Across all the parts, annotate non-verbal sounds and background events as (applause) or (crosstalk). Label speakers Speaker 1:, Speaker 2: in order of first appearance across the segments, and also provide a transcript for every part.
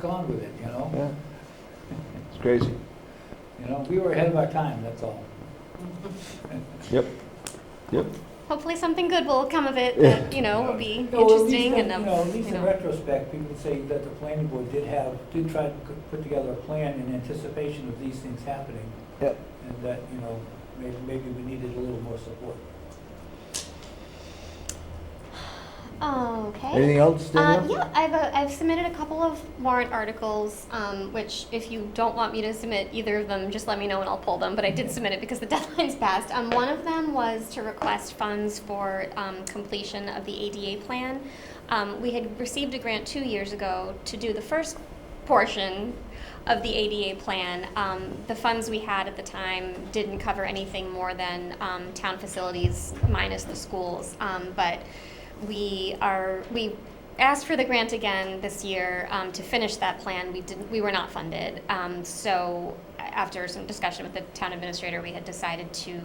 Speaker 1: gone with it, you know?
Speaker 2: Yeah. It's crazy.
Speaker 1: You know, we were ahead of our time, that's all.
Speaker 2: Yep. Yep.
Speaker 3: Hopefully something good will come of it that, you know, will be
Speaker 1: No, at least
Speaker 3: interesting
Speaker 1: in-
Speaker 3: and, um,
Speaker 1: You know, at least
Speaker 3: you
Speaker 1: in
Speaker 3: know.
Speaker 1: retrospect, people would say that the planning board did have, did try to c- put together a plan in anticipation of these things happening.
Speaker 2: Yep.
Speaker 1: And that, you know, maybe, maybe we needed a little more support.
Speaker 3: Okay.
Speaker 2: Anything else,
Speaker 3: Uh,
Speaker 2: Danielle?
Speaker 3: yeah, I've, uh, I've submitted a couple of warrant articles, um, which if you don't want me to submit either of them, just let me know and I'll pull them. But I did submit it because the (laughs) deadline's passed. Um, one of them was to request funds for um, completion of the ADA plan. Um, we had received a grant two years ago to do the first portion of the ADA plan. Um, the funds we had at the time didn't cover anything more than um, town facilities minus the schools. Um, but we are we asked for the grant again this year um, to finish that plan. We didn't we were not funded. Um, so a- after some discussion with the town administrator, we had decided to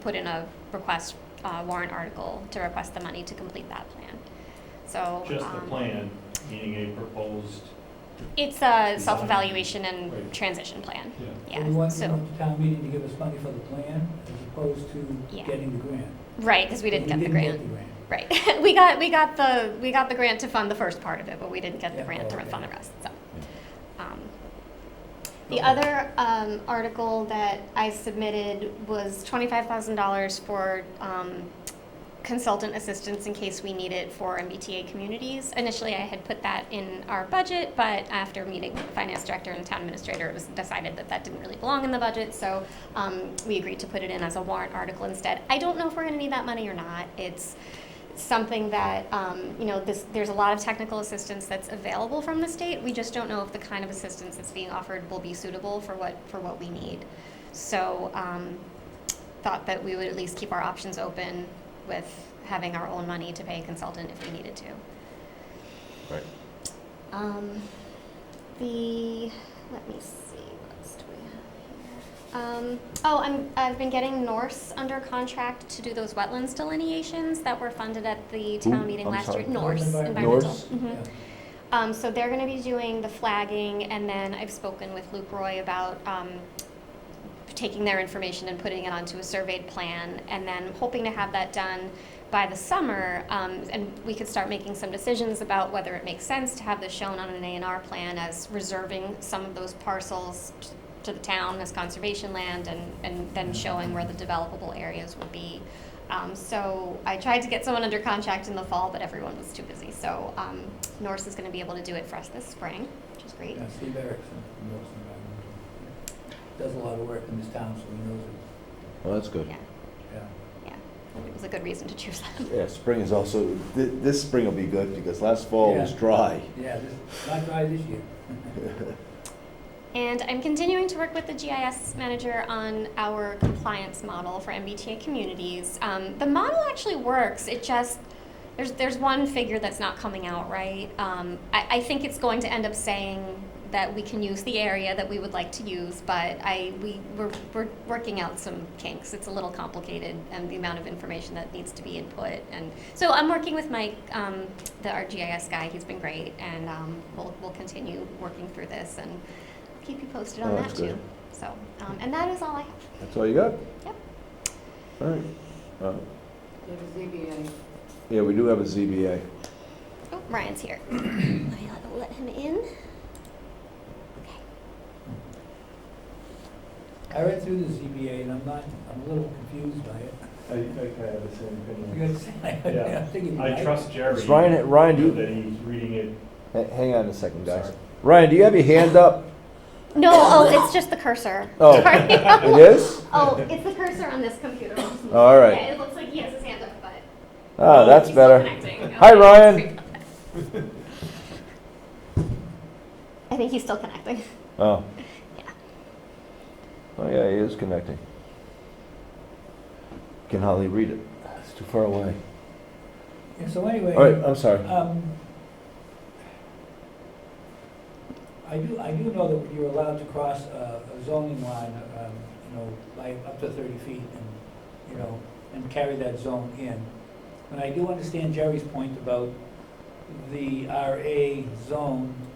Speaker 3: put in a request uh, warrant article to request the money to complete that plan. So
Speaker 4: Just the
Speaker 3: um,
Speaker 4: plan, meaning a proposed,
Speaker 3: It's a self-evaluation and
Speaker 4: Right.
Speaker 3: transition plan.
Speaker 4: yeah.
Speaker 1: So We
Speaker 3: Yeah,
Speaker 1: want, we
Speaker 3: so,
Speaker 1: want the town meeting to give us money for the plan as opposed to
Speaker 3: Yeah.
Speaker 1: getting the grant.
Speaker 3: right, because we didn't get the grant.
Speaker 1: grant.
Speaker 3: Right. (laughs) We got, we got the, we got the grant to fund the first part of it, but we didn't get the
Speaker 1: Yeah, Oh,
Speaker 3: grant to
Speaker 1: okay.
Speaker 3: fund the rest, so. um, The
Speaker 1: Okay.
Speaker 3: other um, article that I submitted was twenty-five thousand dollars for um, consultant assistance in case we need it for MBTA communities. Initially, I had put that in our budget, but after meeting with the finance director and town administrator, it was decided that that didn't really belong in the budget, so um, we agreed to put it in as a warrant article instead. I don't know if we're gonna need that money or not. It's something that, um, you know, this, there's a lot of technical assistance that's available from the state. We just don't know if the kind of assistance that's being offered will be suitable for what, for what we need. So, um, thought that we would at least keep our options open with having our own money to pay a consultant if we needed to.
Speaker 2: Right.
Speaker 3: Um, the, let me see, what else do we have here? Um, oh, I'm, I've been getting Norse under contract to do those wetlands delineations that were funded at the
Speaker 2: Who?
Speaker 3: town meeting
Speaker 2: I'm
Speaker 3: last
Speaker 2: sorry.
Speaker 3: year. Norse,
Speaker 1: Norse
Speaker 3: environmental.
Speaker 1: Environmental.
Speaker 2: Norse?
Speaker 3: Mhm.
Speaker 1: Yeah.
Speaker 3: Um, so they're gonna be doing the flagging, and then I've spoken with Luke Roy about, um, taking their information and putting it onto a surveyed plan, and then hoping to have that done by the summer, um, and we could start making some decisions about whether it makes sense to have this shown on an A and R plan as reserving some of those parcels t- to the town as conservation land, and, and then showing where the developable areas would be. Um, so I tried to get someone under contract in the fall, but everyone was too busy, so, um, Norse is gonna be able to do it for us this spring, which is great.
Speaker 1: Yeah, Steve Erickson from Norse Environmental. Does a lot of work in this town, so he knows it,
Speaker 2: Well, that's good.
Speaker 3: Yeah,
Speaker 1: yeah.
Speaker 3: yeah, it was a good reason to choose them.
Speaker 2: Yeah, spring is also, thi- this spring will be good because last fall was
Speaker 1: Yeah.
Speaker 2: dry.
Speaker 1: Yeah, this, not dry this year.
Speaker 3: And I'm continuing to work with the GIS manager on our compliance model for MBTA communities. Um, the model actually works, it just, there's, there's one figure that's not coming out right. Um, I, I think it's going to end up saying that we can use the area that we would like to use, but I, we, we're, we're working out some kinks. It's a little complicated and the amount of information that needs to be input. And so I'm working with Mike, um, the RGIS guy, he's been great, and, um, we'll, we'll continue working through this and keep you posted on
Speaker 2: Oh,
Speaker 3: that
Speaker 2: that's
Speaker 3: too.
Speaker 2: good.
Speaker 3: So, um, and that is all I have.
Speaker 2: That's all you got?
Speaker 3: Yep.
Speaker 2: All right. Uh,
Speaker 5: Go to ZBA.
Speaker 2: Yeah, we do have a ZBA.
Speaker 3: Oh, Ryan's (coughs) here. I'll let him in. Okay.
Speaker 1: I read through the ZBA and I'm not, I'm a little confused by it.
Speaker 6: I, I kind of have the same
Speaker 1: You
Speaker 6: opinion.
Speaker 1: guys, (laughs) I'm
Speaker 4: Yeah.
Speaker 1: thinking.
Speaker 4: I trust Jerry.
Speaker 2: It's Ryan- Ryan, do you-
Speaker 4: That he's reading it.
Speaker 2: Ha- Hang on a second, guys.
Speaker 4: Sorry.
Speaker 2: Ryan, do you have your hand up?
Speaker 3: No, oh, it's just the cursor.
Speaker 2: Oh.
Speaker 3: Sorry.
Speaker 2: (laughs) It is?
Speaker 3: oh, it's the cursor on this computer.
Speaker 2: All right.
Speaker 3: Yeah, it looks like he has his hand up, but.
Speaker 2: Ah, that's
Speaker 3: Oh, he's still
Speaker 2: better.
Speaker 3: connecting.
Speaker 2: Hi,
Speaker 3: Okay,
Speaker 2: Ryan.
Speaker 3: sorry about that. (laughs) I think he's still connecting.
Speaker 2: Oh.
Speaker 3: Yeah.
Speaker 2: Oh, yeah, he is connecting. Can hardly read it. It's too far away.
Speaker 1: Yeah, So anyway.
Speaker 2: All right, I'm sorry.
Speaker 1: Um, I do, I do know that you're allowed to cross a a zoning line, um, you know, by up to thirty feet and, you know, and carry that zone in. And I do understand Jerry's point about the RA zone